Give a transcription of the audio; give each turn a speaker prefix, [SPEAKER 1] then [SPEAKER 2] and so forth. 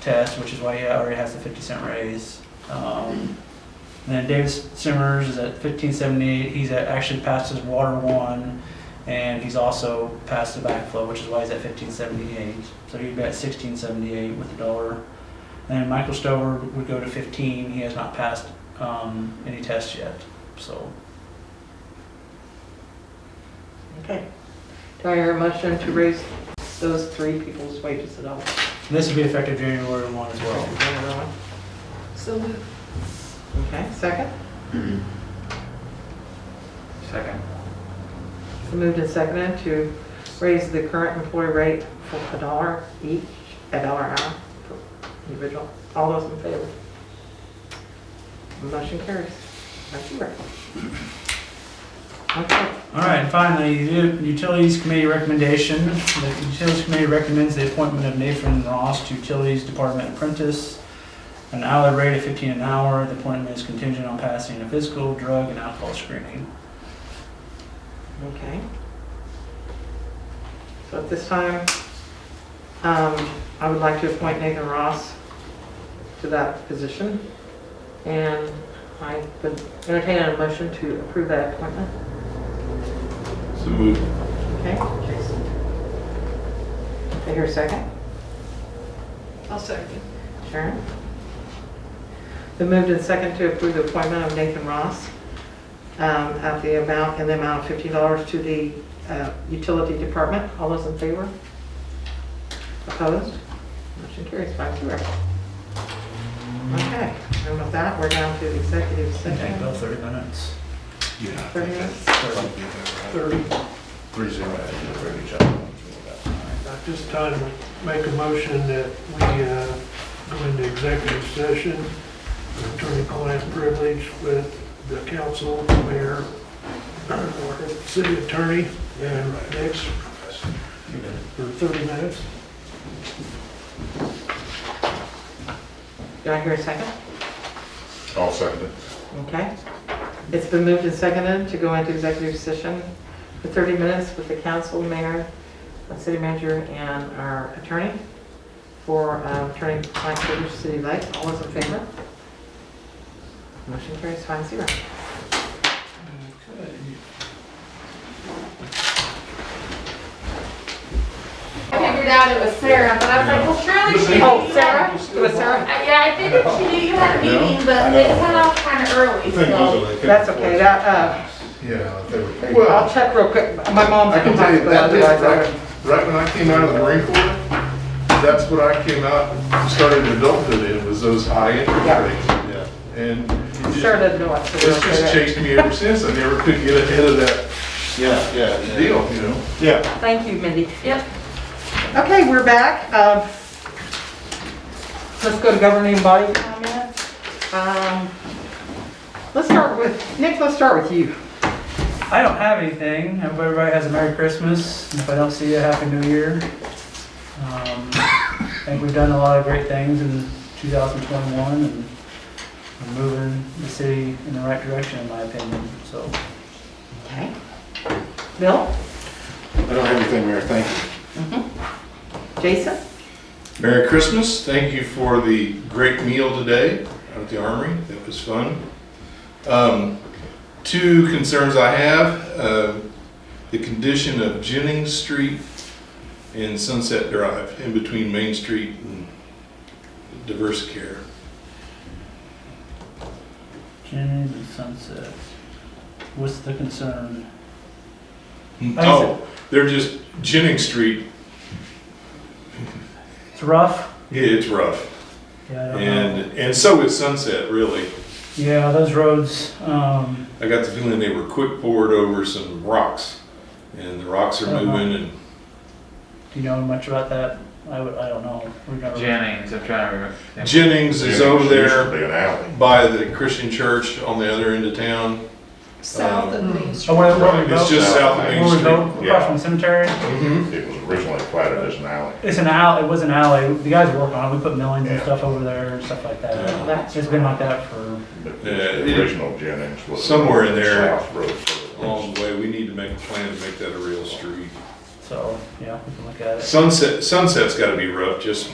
[SPEAKER 1] test, which is why he already has the fifty cent raise. Um, and then David Simmers is at fifteen seventy-eight, he's at, actually passed his water one, and he's also passed the backflow, which is why he's at fifteen seventy-eight. So he'd be at sixteen seventy-eight with a dollar. And then Michael Stover would go to fifteen, he has not passed, um, any tests yet, so.
[SPEAKER 2] Okay. Do I hear a motion to raise those three people's wages at all?
[SPEAKER 1] And this would be effective January one as well.
[SPEAKER 3] So moved.
[SPEAKER 2] Okay, second?
[SPEAKER 4] Second.
[SPEAKER 2] It's been moved and seconded to raise the current employee rate for a dollar each, a dollar an hour for individual. All those in favor? Motion carries. That's your. Okay.
[SPEAKER 1] All right, and finally, the Utilities Committee recommendation. The Utilities Committee recommends the appointment of Nathan Ross to Utilities Department apprentice. An hourly rate of 15 an hour. The appointment is contingent on passing a physical, drug, and alcohol screening.
[SPEAKER 2] Okay. So at this time, um, I would like to appoint Nathan Ross to that position. And I would entertain a motion to approve that appointment.
[SPEAKER 4] So moved.
[SPEAKER 2] Okay, Jason. I hear a second.
[SPEAKER 3] I'll second.
[SPEAKER 2] Sharon? The moved and second to approve the appointment of Nathan Ross um, at the amount, in the amount of $50 to the uh, utility department. All those in favor? Opposed? Motion carries five zero. Okay, and with that, we're down to the executive
[SPEAKER 1] That take
[SPEAKER 2] session.
[SPEAKER 1] about 30 minutes.
[SPEAKER 5] Yeah, I
[SPEAKER 2] Thirty
[SPEAKER 5] think
[SPEAKER 2] minutes?
[SPEAKER 5] that's probably about
[SPEAKER 6] Thirty.
[SPEAKER 5] Three zero, I think, for each other.
[SPEAKER 6] At this time, I make a motion that we uh, go into executive session, for attorney-client privilege with the council, mayor, or city attorney, and next for 30 minutes.
[SPEAKER 2] Do I hear a second?
[SPEAKER 5] I'll second it.
[SPEAKER 2] Okay. It's been moved and seconded to go into executive session for 30 minutes with the council, mayor, the city manager, and our attorney for um, attorney-client privilege, city light. All those in favor? Motion carries five zero.
[SPEAKER 7] I figured out it was Sarah, but I was like, well, surely she
[SPEAKER 2] Oh,
[SPEAKER 7] knew Sarah. Uh,
[SPEAKER 2] Sarah? It was Sarah?
[SPEAKER 7] Yeah, I figured she knew you had a
[SPEAKER 5] Yeah,
[SPEAKER 7] meeting, but
[SPEAKER 5] I
[SPEAKER 7] they
[SPEAKER 5] know.
[SPEAKER 7] cut off kind of early, so.
[SPEAKER 2] That's okay. That, uh,
[SPEAKER 5] Yeah, if they were paid.
[SPEAKER 2] I'll
[SPEAKER 5] Well,
[SPEAKER 2] check real quick. My mom's.
[SPEAKER 5] I can tell you,
[SPEAKER 2] but
[SPEAKER 5] that is,
[SPEAKER 2] otherwise I
[SPEAKER 5] right, right when I came out of the Marine Corps, that's when I came out, and started adulthood in, was those high
[SPEAKER 2] Yeah.
[SPEAKER 5] interest rates. And it
[SPEAKER 2] would-
[SPEAKER 5] just-
[SPEAKER 2] Sarah doesn't know what to do.
[SPEAKER 5] it's just chased me ever since. I never could get ahead of that. Yeah, yeah. Deal, you know? Yeah.
[SPEAKER 2] Thank you, Mindy.
[SPEAKER 7] Yep.
[SPEAKER 2] Okay, we're back. Um, Let's go to governing body comments. Um, Let's start with, Nick, let's start with you.
[SPEAKER 1] I don't have anything. I hope everybody has a Merry Christmas. and If I don't see you, Happy New Year. Um, I think we've done a lot of great things in 2021 and we're moving the city in the right direction, in my opinion. So
[SPEAKER 2] Okay. Bill?
[SPEAKER 5] I don't have anything, Mayor. Thank you.
[SPEAKER 2] Mm-hmm. Jason?
[SPEAKER 5] Merry Christmas. Thank you for the great meal today out at the Armory. That was fun. Um, two concerns I have uh, the condition of Jennings Street and Sunset Drive in between Main Street and Diverse Care.
[SPEAKER 1] Jennings and Sunset. What's the concern?
[SPEAKER 5] Oh, they're just Jennings Street.
[SPEAKER 1] It's rough.
[SPEAKER 5] Yeah, it's rough.
[SPEAKER 1] Yeah, I don't know.
[SPEAKER 5] And, and so is Sunset, really.
[SPEAKER 1] Yeah, those roads, um,
[SPEAKER 5] I got the feeling they were quick poured over some rocks. And the rocks are
[SPEAKER 1] Uh-huh.
[SPEAKER 5] moving and
[SPEAKER 1] do you know much about that? I would, I don't know. We've never-
[SPEAKER 4] Jennings, I'm trying to remember.
[SPEAKER 5] Jennings is
[SPEAKER 8] Yeah,
[SPEAKER 5] over
[SPEAKER 8] it's usually
[SPEAKER 5] there
[SPEAKER 8] an alley.
[SPEAKER 5] by the Christian church on the other end of town.
[SPEAKER 3] South of Main Street.
[SPEAKER 1] Oh, where, where we go?
[SPEAKER 5] It's just south of Main
[SPEAKER 1] Where we go,
[SPEAKER 5] Street.
[SPEAKER 1] across from the cemetery?
[SPEAKER 5] Mhm.
[SPEAKER 8] It was originally platted as an alley.
[SPEAKER 1] It's an alley, it was an alley. The guys work on it. We put millings and
[SPEAKER 8] Yeah.
[SPEAKER 1] stuff over there and stuff like that.
[SPEAKER 5] Yeah.
[SPEAKER 2] That's
[SPEAKER 1] It's been like that for,
[SPEAKER 8] but
[SPEAKER 5] Yeah,
[SPEAKER 8] The
[SPEAKER 5] it-
[SPEAKER 8] original Jennings was.
[SPEAKER 5] Somewhere in there.
[SPEAKER 8] South Road. sort of.
[SPEAKER 5] Along the way, we need to make a plan to make that a real street.
[SPEAKER 1] so, yeah, we can look at it.
[SPEAKER 5] Sunset, Sunset's gotta be rough, just